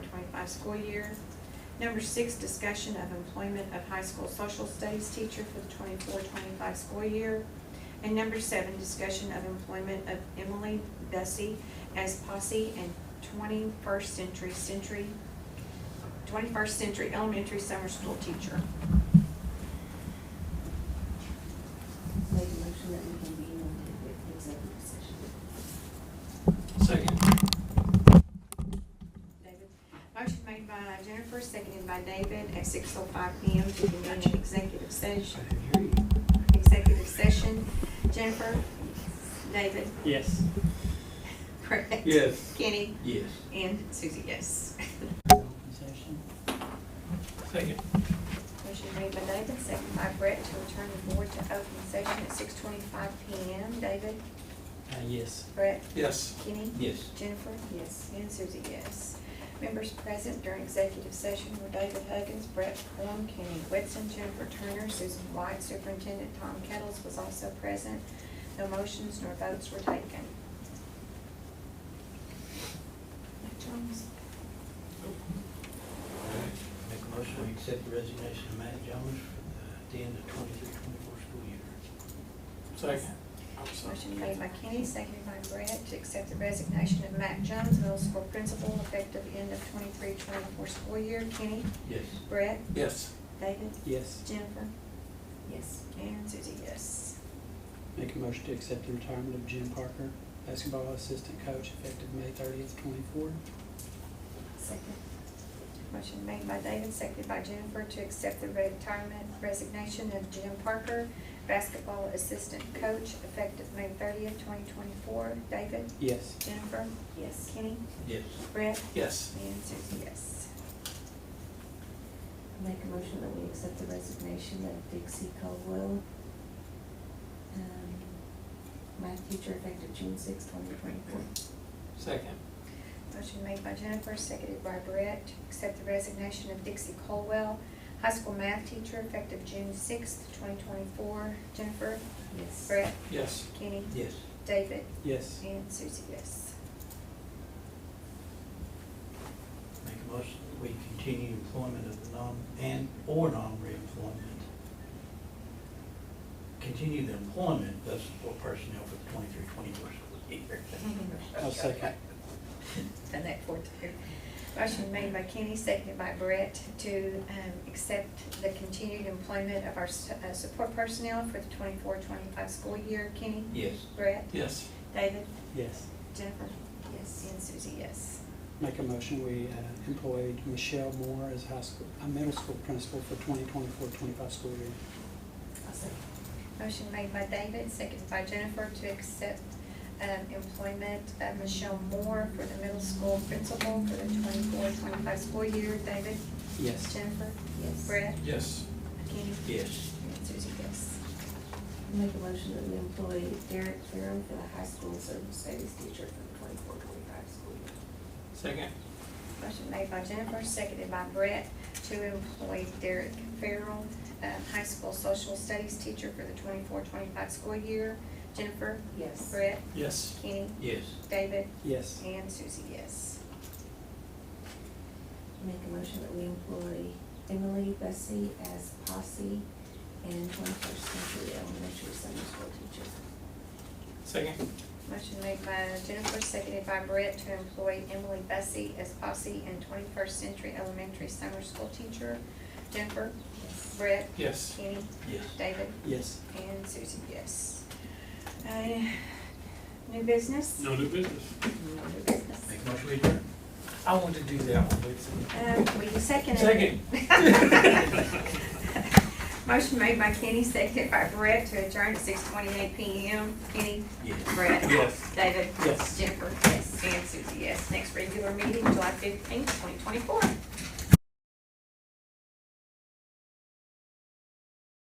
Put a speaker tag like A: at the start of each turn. A: twenty-five school year. Number six, discussion of employment of high school social studies teacher for the 24-25 school year. And number seven, discussion of employment of Emily Bessie as posse and twenty-first century century, twenty-first century elementary summer school teacher.
B: Make a motion that we convene into the executive session.
C: Second.
A: David. Motion made by Jennifer, seconded by David at six oh five P M to convene an executive session, executive session. Jennifer? David?
C: Yes.
A: Craig?
C: Yes.
A: Kenny?
C: Yes.
A: And Susie, yes.
C: Second.
A: Motion made by David, seconded by Brett to return the board to open session at six twenty-five P M. David?
C: Uh, yes.
A: Brett?
C: Yes.
A: Kenny?
C: Yes.
A: Jennifer?
B: Yes.
A: And Susie, yes. Members present during executive session were David Huggins, Brett Plum, Kenny Whitson, Jennifer Turner, Susan White, Superintendent Tom Kettles was also present. No motions nor votes were taken. Mike Jones?
D: Make a motion to accept the resignation of Matt Jones for the- the end of twenty-three, twenty-four school year.
C: Second.
A: Motion made by Kenny, seconded by Brett, to accept the resignation of Matt Jones, middle school principal, effective end of 23-24 school year. Kenny?
D: Yes.
A: Brett?
C: Yes.
A: David?
C: Yes.
A: Jennifer?
B: Yes.
A: And Susie, yes.
E: Make a motion to accept the retirement of Jim Parker, basketball assistant coach, effective May thirtieth, twenty-four.
B: Second.
A: Motion made by David, seconded by Jennifer, to accept the retirement resignation of Jim Parker, basketball assistant coach, effective May thirtieth, twenty twenty-four. David?
E: Yes.
A: Jennifer?
B: Yes.
A: Kenny?
D: Yes.
A: Brett?
C: Yes.
A: And Susie, yes.
B: Make a motion that we accept the resignation of Dixie Caldwell, um, math teacher effective June sixth, twenty twenty-four.
C: Second.
A: Motion made by Jennifer, seconded by Brett, to accept the resignation of Dixie Colwell, high school math teacher, effective June sixth, twenty twenty-four. Jennifer?
B: Yes.
A: Brett?
C: Yes.
A: Kenny?
D: Yes.
A: David?
E: Yes.
A: And Susie, yes.
D: Make a motion that we continue employment of the non, and, or non-reemployment. Continue the employment of support personnel for the twenty-three, twenty-four school year.
E: I'll second.
A: Done that for two. Motion made by Kenny, seconded by Brett, to um, accept the continued employment of our s- uh, support personnel for the 24-25 school year. Kenny?
D: Yes.
A: Brett?
C: Yes.
A: David?
E: Yes.
A: Jennifer?
B: Yes.
A: And Susie, yes.
E: Make a motion, we uh, employed Michelle Moore as high school, a middle school principal for 2024-25 school year.
B: I'll second.
A: Motion made by David, seconded by Jennifer to accept um, employment of Michelle Moore for the middle school principal for the 24-25 school year. David?
E: Yes.
A: Jennifer?
B: Yes.
A: Brett?
C: Yes.
A: Kenny?
D: Yes.
A: And Susie, yes.
B: Make a motion that we employ Derek Farum for the high school service studies teacher for the twenty-four, twenty-five school year.
C: Second.
A: Motion made by Jennifer, seconded by Brett, to employ Derek Farrell, uh, high school social studies teacher for the 24-25 school year. Jennifer,
B: Yes.
A: Brett,
C: Yes.
A: Kenny,
D: Yes.
A: David,
E: Yes.
A: and Susie, yes.
B: Make a motion that we employ Emily Bessie as posse and twenty-first century elementary summer school teacher.
C: Second.
A: Motion made by Jennifer, seconded by Brett, to employ Emily Bessie as posse and twenty-first century elementary summer school teacher. Jennifer,
B: Yes.
A: Brett,
C: Yes.
A: Kenny,
D: Yes.
A: David,
E: Yes.
A: and Susie, yes. Uh, New business?
C: No new business.
A: New business.
D: Make a motion to adjourn.
C: I want to do that one,
A: Um, will you second it?
C: Second.
A: Motion made by Kenny, seconded by Brett to adjourn at six twenty-eight PM. Kenny?
D: Yes.
A: Brett?
C: Yes.
A: David?
E: Yes.
A: Jennifer? Yes. And Susie, yes. Next regular meeting, July fifteenth, twenty twenty-four.